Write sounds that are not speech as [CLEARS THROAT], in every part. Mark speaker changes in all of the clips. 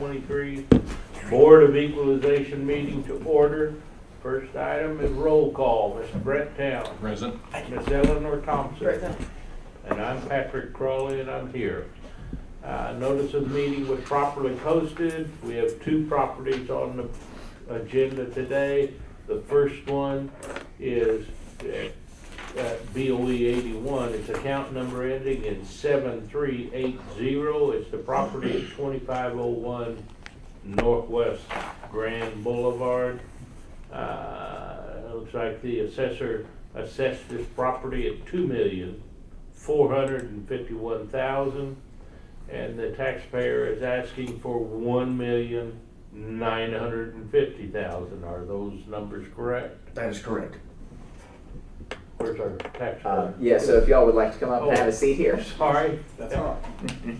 Speaker 1: 2023 Board of Equalization meeting to order. First item is roll call. Mr. Brett Town,
Speaker 2: Present.
Speaker 1: Ms. Eleanor Thompson, and I'm Patrick Crawley, and I'm here. Uh, Notice of meeting was properly posted. We have two properties on the agenda today. The first one is at at BOE eighty-one, it's account number ending in seven three eight zero, it's the property at twenty-five oh one Northwest Grand Boulevard. Uh, it looks like the assessor assessed this property at two million, four hundred and fifty-one thousand, and the taxpayer is asking for one million, nine hundred and fifty thousand, are those numbers correct?
Speaker 3: That is correct.
Speaker 1: Where's our tax?
Speaker 4: Uh,
Speaker 1: lawyer?
Speaker 4: yeah, so if y'all would like to come up and have a seat here.
Speaker 1: Sorry,
Speaker 3: That's all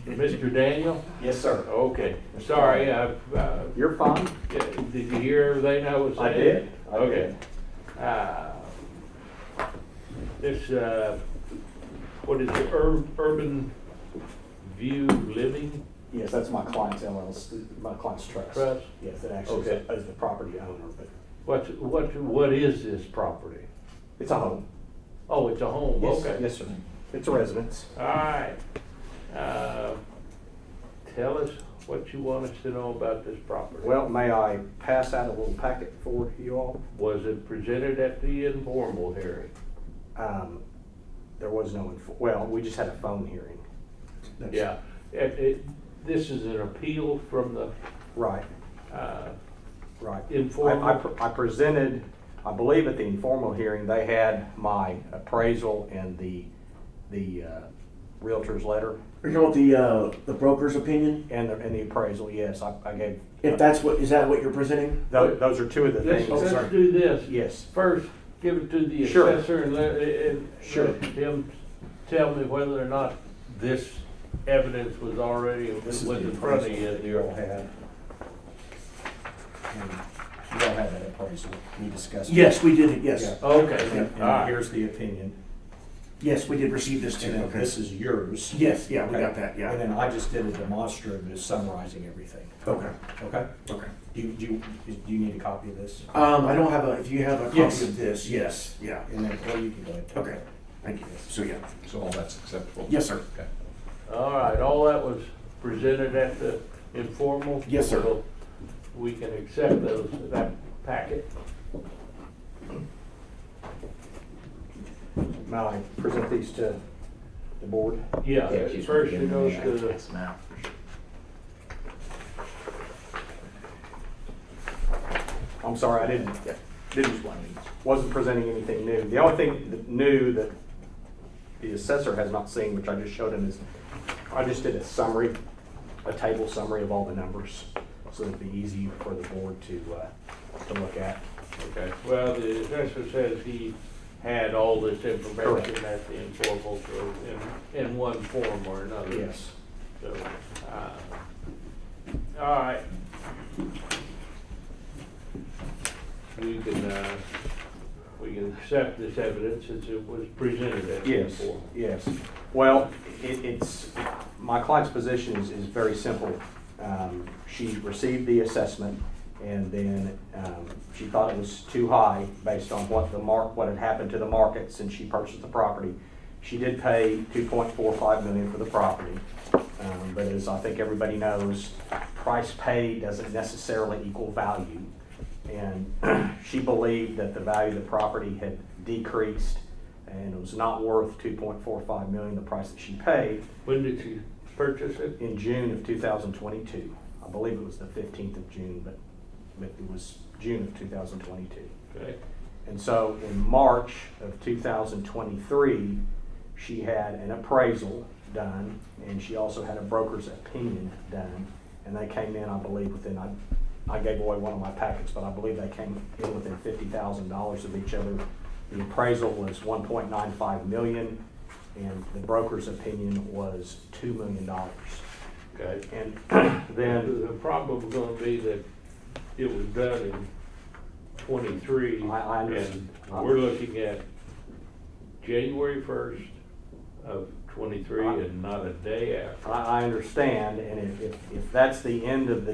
Speaker 1: Mr. Uh, Daniel?
Speaker 3: Yes, sir.
Speaker 1: Okay, sorry, I, uh,
Speaker 4: You're fine.
Speaker 1: yeah, did you hear everything I was saying?
Speaker 3: I did. I
Speaker 1: Okay. Uh, This, uh, what is it, Ur- Urban View Living
Speaker 3: Yes, that's my client's LLC, my client's trust.
Speaker 1: Trust?
Speaker 3: Yes, it actually is
Speaker 1: Okay.
Speaker 3: is the property owner, but
Speaker 1: What's, what, what is this property?
Speaker 3: it's a home.
Speaker 1: Oh, it's a home,
Speaker 3: Yes,
Speaker 1: okay.
Speaker 3: Yes, sir. It's a residence.
Speaker 1: All right. Uh, Tell us what you want us to know about this property.
Speaker 3: Well, may I pass out a little packet for you all?
Speaker 1: Was it presented at the informal hearing?
Speaker 3: Um, There was no, info- well, we just had a phone hearing.
Speaker 1: Yeah, it, it, this is an appeal from the,
Speaker 3: Right,
Speaker 1: uh,
Speaker 3: right.
Speaker 1: Informal.
Speaker 3: I- I pre- I presented, I believe at the informal hearing, they had my appraisal and the, the uh, Realtor's letter
Speaker 5: You know the uh, the broker's opinion.
Speaker 3: and the, and the appraisal, yes, I I gave.
Speaker 5: If that's what is that what you're presenting?
Speaker 3: Those, those are two of the
Speaker 1: let's,
Speaker 3: things.
Speaker 1: let's do this.
Speaker 3: Yes.
Speaker 1: First, give it to the
Speaker 3: Sure.
Speaker 1: assessor and let, and
Speaker 3: Sure.
Speaker 1: let him tell me whether or not this evidence was already, was in front of you.
Speaker 3: You all had. You all had that appraisal, we discussed. it.
Speaker 5: Yes, we did it. Yes,
Speaker 3: Yeah.
Speaker 1: Okay,
Speaker 3: And-
Speaker 1: all right.
Speaker 3: And here's the opinion,
Speaker 5: yes, we did receive this too.
Speaker 3: and then
Speaker 5: Okay.
Speaker 3: this is yours.
Speaker 5: Yes, yeah, we
Speaker 3: Okay.
Speaker 5: got that. Yeah.
Speaker 3: And then I just did a demonstrative summarizing everything,
Speaker 5: okay.
Speaker 3: okay?
Speaker 5: Okay.
Speaker 3: Do you, do you, do you need a copy of this?
Speaker 5: Um, I don't have a. If you have a copy
Speaker 3: Yes.
Speaker 5: of this, yes, yeah.
Speaker 3: And then, or you can go ahead.
Speaker 5: Okay. Thank you. So yeah.
Speaker 2: So all that's acceptable?
Speaker 5: Yes, sir.
Speaker 2: Okay.
Speaker 1: All right, all that was presented at the informal?
Speaker 5: Yes, sir.
Speaker 1: So We can accept those, that packet.
Speaker 3: May I present these to the board?
Speaker 1: Yeah,
Speaker 4: Yeah, she's
Speaker 1: first
Speaker 4: gonna
Speaker 1: it
Speaker 4: give
Speaker 1: goes
Speaker 4: me
Speaker 1: to
Speaker 4: that
Speaker 1: the
Speaker 4: text now.
Speaker 3: I'm sorry, I didn't,
Speaker 4: Yeah, this is one of these.
Speaker 3: wasn't presenting anything new. The only thing that new that the assessor has not seen, which I just showed him, is I just did a summary, a table summary of all the numbers, so it'd be easy for the board to, uh, to look at.
Speaker 1: Okay, well, the assessor says he had all this information
Speaker 3: Correct.
Speaker 1: at the informal, so in, in one form or another.
Speaker 3: Yes.
Speaker 1: So, uh, all right. We can, uh, we can accept this evidence since it was presented at the
Speaker 3: Yes,
Speaker 1: informal.
Speaker 3: yes. Well, it, it's, my client's position is, is very simple. Um, she received the assessment and then, um, she thought it was too high based on what the mark, what had happened to the market since she purchased the property. She did pay two point four five million for the property. Um, but as I think everybody knows, price paid doesn't necessarily equal value. And [CLEARS THROAT] she believed that the value of the property had decreased and it was not worth two point four five million, the price that she paid
Speaker 1: When did you purchase it?
Speaker 3: in June of two thousand twenty-two. I believe it was the fifteenth of June, but, but it was June of two thousand twenty-two.
Speaker 1: Okay.
Speaker 3: And so in March of two thousand twenty-three, she had an appraisal done, and she also had a broker's opinion done. And they came in, I believe, within, I, I gave away one of my packets, but I believe they came in within fifty thousand dollars of each other. The appraisal was one point nine five million, and the broker's opinion was two million dollars.
Speaker 1: Okay.
Speaker 3: And [CLEARS THROAT] then,
Speaker 1: The problem is gonna be that it was done in twenty-three.
Speaker 3: I- I understand.
Speaker 1: And we're looking at January first of twenty-three and not a day after.
Speaker 3: I, I understand, and if, if, if that's the end of the